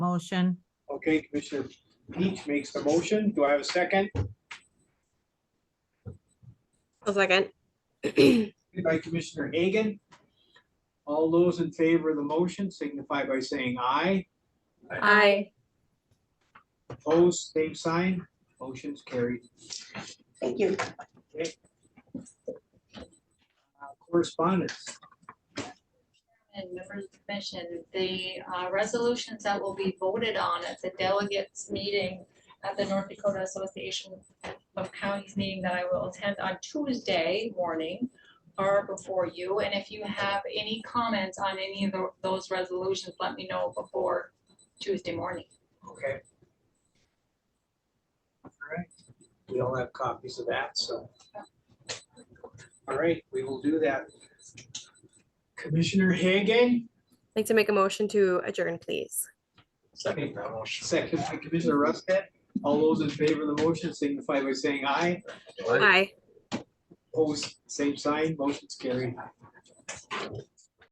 motion. Okay, Commissioner Peach makes the motion. Do I have a second? I'll second. Seconded By Commissioner Hagan. All those in favor of the motion signify by saying aye. Aye. Opposed, same sign. Motion's carried. Thank you. Uh, Correspondence. And members of the commission, the uh, resolutions that will be voted on at the delegates meeting at the North Dakota Association of Counties meeting that I will attend on Tuesday morning are before you. And if you have any comments on any of tho- those resolutions, let me know before Tuesday morning. Okay. All right, we all have copies of that, so. All right, we will do that. Commissioner Hagan, I'd Like to make a motion to adjourn, please. Second that motion. second by Commissioner Rustet. All those in favor of the motion signify by saying aye. Aye. Opposed, same sign, motion's carried.